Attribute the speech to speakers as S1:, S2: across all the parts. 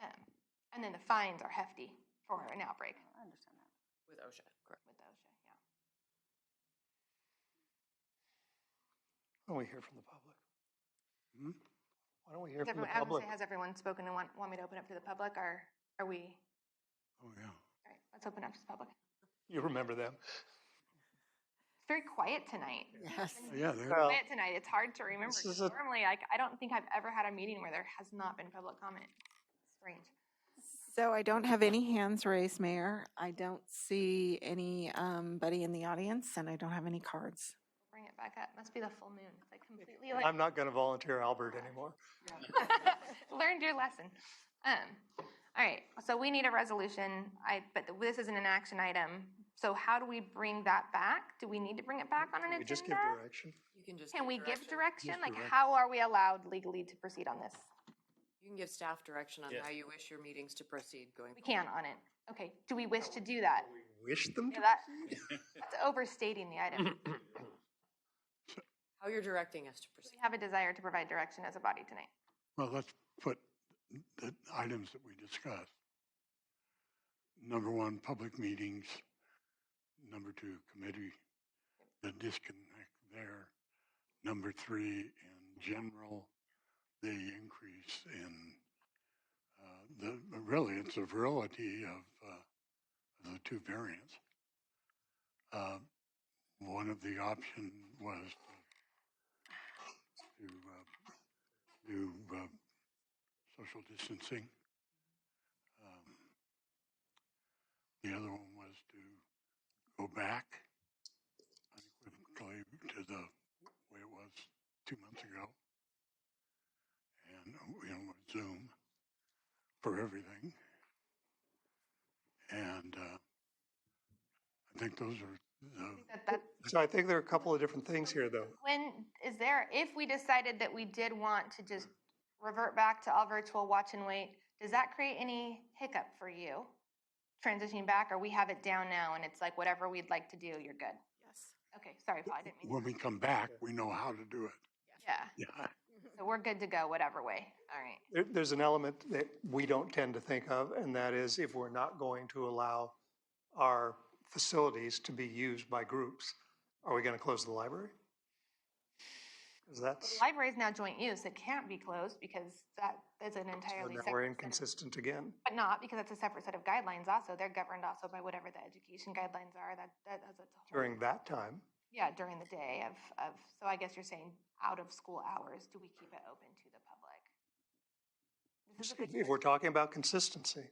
S1: Um, then the fines are hefty for an outbreak
S2: I understand that.
S3: With OSHA, correct.
S1: with OSHA, yeah.
S4: Why don't we hear from the public? Hmm? Why don't we hear
S1: Has
S4: from the
S1: everyone, I was gonna
S4: public?
S1: say, has everyone spoken and want, want me to open up to the public, or are we, all
S4: Oh, yeah.
S1: right, let's open up to the public. It's
S4: You remember them?
S1: very quiet tonight.
S2: Yes.
S5: Oh,
S4: Yeah, they're,
S6: Well,
S1: Quiet tonight, it's hard to remember.
S4: This
S1: 'cause
S4: is a-
S1: Normally, like, I don't think I've ever had a meeting where there has not been public comment. Strange.
S2: So I don't have any hands raised, Mayor. I don't see anybody in the audience, and I don't have any cards.
S1: Bring it back up, must be the full moon, it's like completely like.
S4: I'm not going to volunteer Albert anymore.
S1: Learned your lesson. Um, all right, so we need a resolution, I, but th- this isn't an action item. So how do we bring that back? Do we need to bring it back on an
S4: We just give
S1: agenda?
S4: direction.
S3: You can just.
S1: Can we give direction?
S4: Just
S1: Like,
S4: direct.
S1: how are we allowed legally to proceed on this?
S3: You can give staff direction on
S4: Yes.
S3: how you wish your meetings to proceed going.
S1: We can on it. Okay, do we wish to do that?
S4: Wish them
S1: Yeah,
S4: to.
S1: that- That's overstating the item. Do
S3: How you're directing us to proceed.
S1: we have a desire to provide direction as a body tonight?
S5: Well, let's put the items that we discussed. Number one, public meetings. Number two, committee, the disconnect there. Number three, in general, the increase in, uh, the, really, it's a virility of, uh, of the two variants. Uh, one of the option was to, uh, do uh, social distancing. Um, The other one was to go back unequivocally to the way it was two months ago. And, uh, you know, with Zoom for everything. And uh, I think those are the,
S4: Hmm.
S1: That, that,
S4: So I think there are a couple of different things here, though.
S1: when, is there, if we decided that we did want to just revert back to all virtual watch and wait, does that create any hiccup for you? Transitioning back, or we have it down now and it's like whatever we'd like to do, you're good?
S2: Yes.
S1: Okay, sorry, Paul, I didn't mean,
S5: when we come back, we know how to do it.
S1: yeah.
S5: Yeah.
S1: So we're good to go whatever way, all right.
S4: There, there's an element that we don't tend to think of, and that is if we're not going to allow our facilities to be used by groups, are we going to close the library? Because
S1: The
S4: that's,
S1: library is now joint use, it can't be closed because that is an
S4: so
S1: entirely
S4: now
S1: separate.
S4: we're
S1: set of-
S4: inconsistent again.
S1: But not, because that's a separate set of guidelines also, they're governed also by whatever the education guidelines are, that, that has its whole.
S4: During that time,
S1: Yeah, during the day of, of, so I guess you're saying out of school hours, do we keep it open to the public? This is a good
S4: if we're talking about consistency.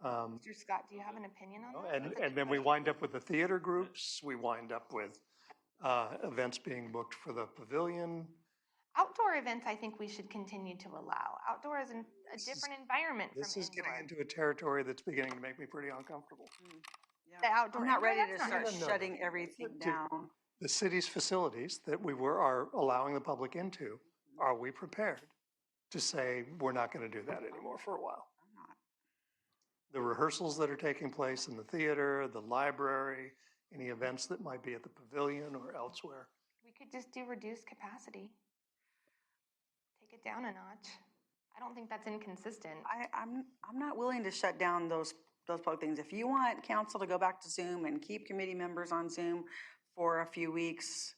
S4: Um,
S1: Mr. Scott, do you have an opinion on that?
S4: And, and then we wind up with the theater groups, we wind up with uh, events being booked for the pavilion.
S1: Outdoor events, I think we should continue to allow. Outdoor is an- a
S4: This is-
S1: different environment from
S4: This is getting
S1: indoor.
S4: into a territory that's beginning to make me pretty uncomfortable.
S1: The
S4: Oh,
S1: outdoor.
S6: I'm not
S1: indoor,
S6: ready to
S1: that's not
S6: start
S4: No, no, no.
S6: shutting everything
S4: Do-
S6: down.
S4: The city's facilities that we were, are allowing the public into, are we prepared to say, we're not going to do that anymore for a while?
S6: I'm not.
S4: The rehearsals that are taking place in the theater, the library, any events that might be at the pavilion or elsewhere.
S1: We could just do reduced capacity. Take it down a notch. I don't think that's inconsistent.
S6: I, I'm, I'm not willing to shut down those, those public things. If you want council to go back to Zoom and keep committee members on Zoom for a few weeks,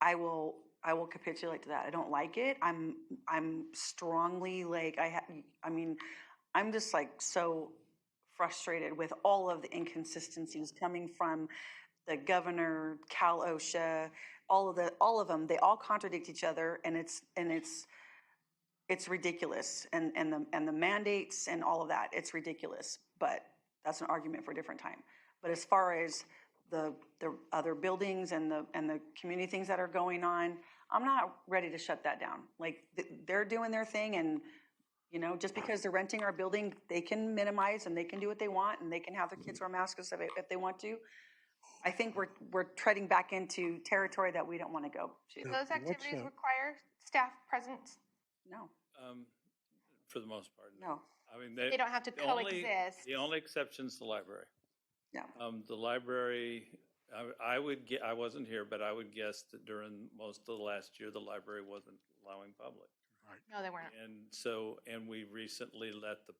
S6: I will, I will capitulate to that. I don't like it. I'm, I'm strongly like, I ha, I mean, I'm just like so frustrated with all of the inconsistencies coming from the governor, Cal OSHA, all of the, all of them. They all contradict each other and it's, and it's, it's ridiculous and, and the and the mandates and all of that it's ridiculous but that's an argument for a different time but as far as the the other buildings and the and the community things that are going on i'm not ready to shut that down like th- they're doing their thing and you know just because they're renting our building they can minimize and they can do what they want and they can have their kids wear masks if, they- if they want to i think we're we're treading back into territory that we don't want to go to
S1: Do
S5: Yeah,
S1: those
S5: what's
S1: activities
S5: that?
S1: require staff presence?
S6: no
S7: Um, for the most part, no.
S6: no
S7: I mean,
S1: They
S7: they,
S1: don't have to
S7: the only-
S1: coexist.
S7: the only exception's the library.
S6: Yeah.
S7: Um, the library, I, I would get, I wasn't here, but I would guess that during most of the last year, the library wasn't allowing public.
S1: No, they weren't.
S7: And so, and we recently let the